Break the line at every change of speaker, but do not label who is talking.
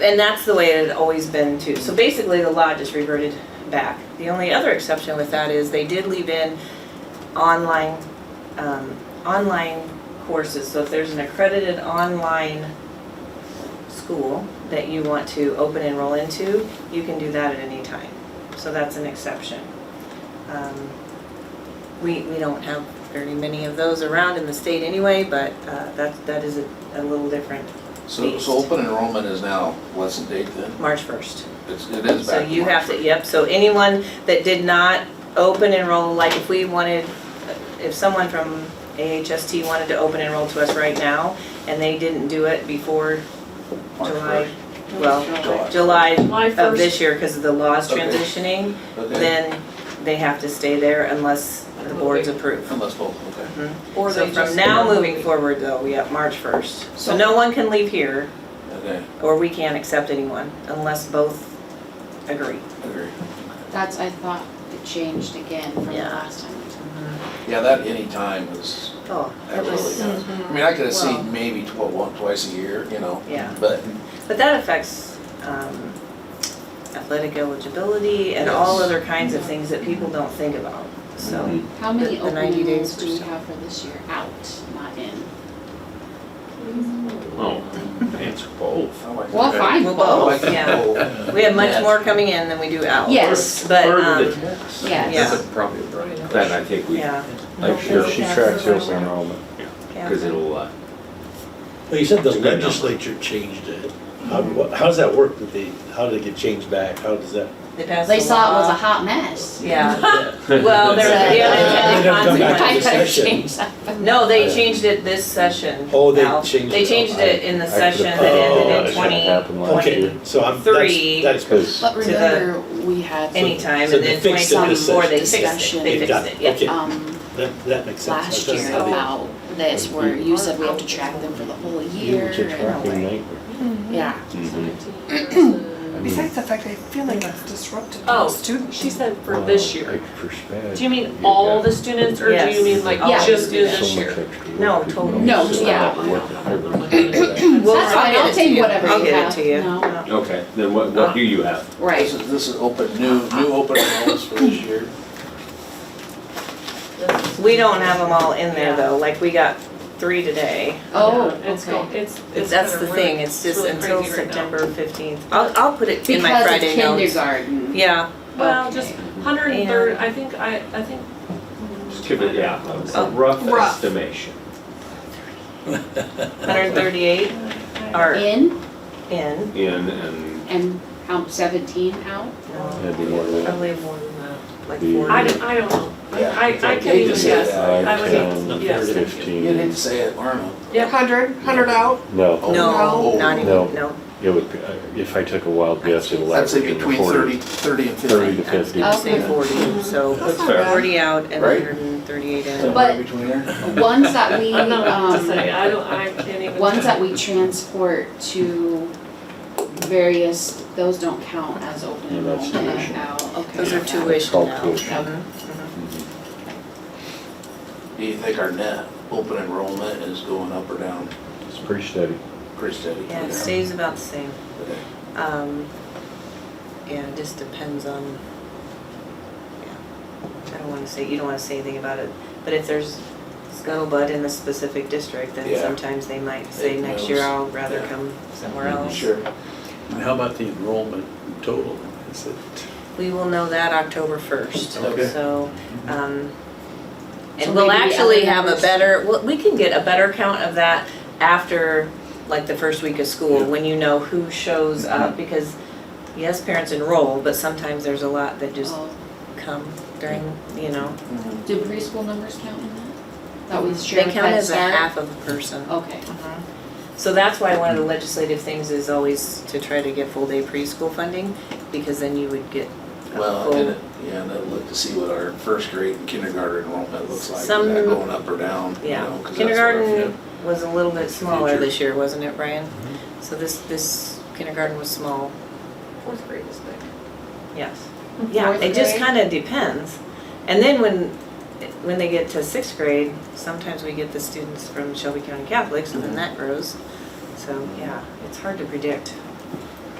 And that's the way it had always been too. So basically, the law just reverted back. The only other exception with that is they did leave in online, um, online courses. So if there's an accredited online school that you want to open enroll into, you can do that at any time. So that's an exception. Um, We, we don't have very many of those around in the state anyway, but uh, that, that is a a little different,
So, so open enrollment is now, what's the date then?
March 1st.
It's, it is
So
back.
you have to,
March.
yep, so anyone that did not open enroll, like if we wanted, if someone from AHST wanted to open enroll to us right now, and they didn't do it before
March
July,
first.
well,
July.
July
July
of
first,
this year, because of the laws
Okay.
transitioning,
Okay,
then they have to stay there unless the boards approve.
unless both, okay.
or
So
they
from
just.
now moving forward though, we have March 1st. So
So-
no one can leave here,
Okay,
or we can't accept anyone unless both agree.
agree.
That's, I thought it changed again from the
Yeah.
last time.
Yeah, that any time is,
Oh,
that
it
really
was,
does. I mean, I could have
Well-
seen maybe tw- one, twice a year, you know,
yeah.
but
But that affects um, athletic eligibility and all
Yes.
other kinds of things that people don't think about, so.
How many
The- the
open
90 days
enrolls do we
were-
have for this year? Out, not in.
No, Oh, it's both.
Oh,
I like
Well,
that.
fine,
Well,
I
both.
like that.
Yeah.
Oh.
We have much
Yes.
more coming in than we do out.
Yes.
But,
Part of the
um,
test.
Yes.
Yeah.
Probably right. Then I think we,
Yeah,
like, sure,
She tracks the open enrollment.
because
yeah.
it'll, uh,
Well, you said the
It's a good number.
legislature changed it. How, wha- how does that work? Did they, how did it get changed back? How does that?
They passed
They
the
saw it was a
law.
hot mess.
Yeah,
Yeah.
well, there were the
They
unintended
don't come back to
I
consequences.
this
gotta
session.
change that.
No, they changed it this session.
Oh, they
Al.
changed
They
it.
changed it in the
I could've-
session that ended in
Oh, that shouldn't have happened last year.
2020
Okay, so I'm,
Three.
that's, that's good.
Because,
But
To the-
remember, we had,
anytime,
so
and
they
then
fixed it in the
2024, they
session.
fixed it, they
They've
fixed
done
it,
it.
yeah.
Okay.
um,
that, that makes sense. I was
last
gonna
year uh,
say they-
about this, where you said we have to track them for the whole
you
year
were just
and all
tracking
that.
night.
Yeah.
Besides the fact, I feel like that's disruptive to
Oh,
the students.
Mm-hmm. She said for this year. Do you mean
got
all the students or do
Yes.
you mean like
Yeah.
just do
so
this
much
year?
extra work
No,
to do.
totally.
No,
So
yeah.
that work and everything.
Well,
That's fine,
get
I'll
it
take
to you.
whatever
I'll
you
get it
have.
to you.
No.
No.
okay, then what, what do you have?
This
Right.
is, this is open, new, new open enrollments for this year.
We don't have them all in there though, like we got three today.
Oh,
Yeah, It's, go-
okay.
it's. it's
That's
kinda
the
weird.
thing, it's just
really
until
crazy right now.
September fifteenth. I'll, I'll put it in my
Because it's
Friday notes.
kindergarten.
Yeah,
Well, just
Okay.
hundred and thirty, I think, I, I think.
Just give it, yeah, a-
Oh.
a rough
Rough.
estimation.
hundred and thirty-eight are
In
in.
In, and
and how, seventeen out?
No,
That'd be more than that.
Probably more than that, uh, like
The-
forty.
I don't, I don't know. I, I
Yeah,
can't
you
even
just said
guess.
that.
I
Five,
would-
ten,
yes, thank you.
You didn't
fifteen.
say it, Arno.
Yep.
Hundred, hundred out,
No,
No,
Oh, No.
not even,
No.
no.
it would, uh, if I took a wild guess, it would
I'd say
average in
between
forty,
30, 30 and 50.
thirty to fifty.
I'd say
Okay.
forty, so
that's
That's
not
fair.
bad.
forty out and
Right.
hundred and thirty-eight in.
Somewhere between there.
The Ones that we,
I don't know what to
um,
say, I don't, I can't even.
Ones that we transport to various, those don't count as open
Yeah, that's
enrollment
tuition.
now, okay.
Those are
yeah.
tuition
called
now.
tuition.
Mhm.
Do you think our net open enrollment is going up or down?
It's pretty steady.
Pretty steady.
Yeah, it stays about the same. Um, yeah, it just depends on, yeah, I don't wanna say, you don't wanna say anything about it, but if there's scuttlebutt in a specific district, then
Yeah.
sometimes they might say,
It
next year
moves.
I'll rather
Yeah.
come somewhere else.
Sure.
And how about the enrollment total? Is it?
We will know that October first,
Okay.
so, um,
So
and we'll
maybe the
actually
other
have a
numbers-
better, well, we can get a better count of that after, like, the first week of school, when you know who shows
Mm-hmm.
up, because, yes, parents enroll, but sometimes there's a lot that just
Oh,
come during, you know.
Mhm.
Do preschool numbers count in that? That we share
They
with
count
Head
as a
Start?
half of a person.
Okay,
So that's why one of the legislative things is always to try to get full-day preschool funding, because then you would get a
Well, and
full.
it- yeah, and I'd look to see what our first grade and kindergarten enrollment looks like. Is
Some-
that going up or down? you know,
Yeah,
'cause that's what our-
kindergarten was a little bit smaller
Future.
this year, wasn't it, Brian? So this, this kindergarten was small,
Fourth grade is big.
yes. Yeah,
Fourth
it just
grade?
kind of depends. And then when, when they get to sixth grade, sometimes we get the students from Shelby County Catholic, so then that grows. So, yeah, it's hard to predict.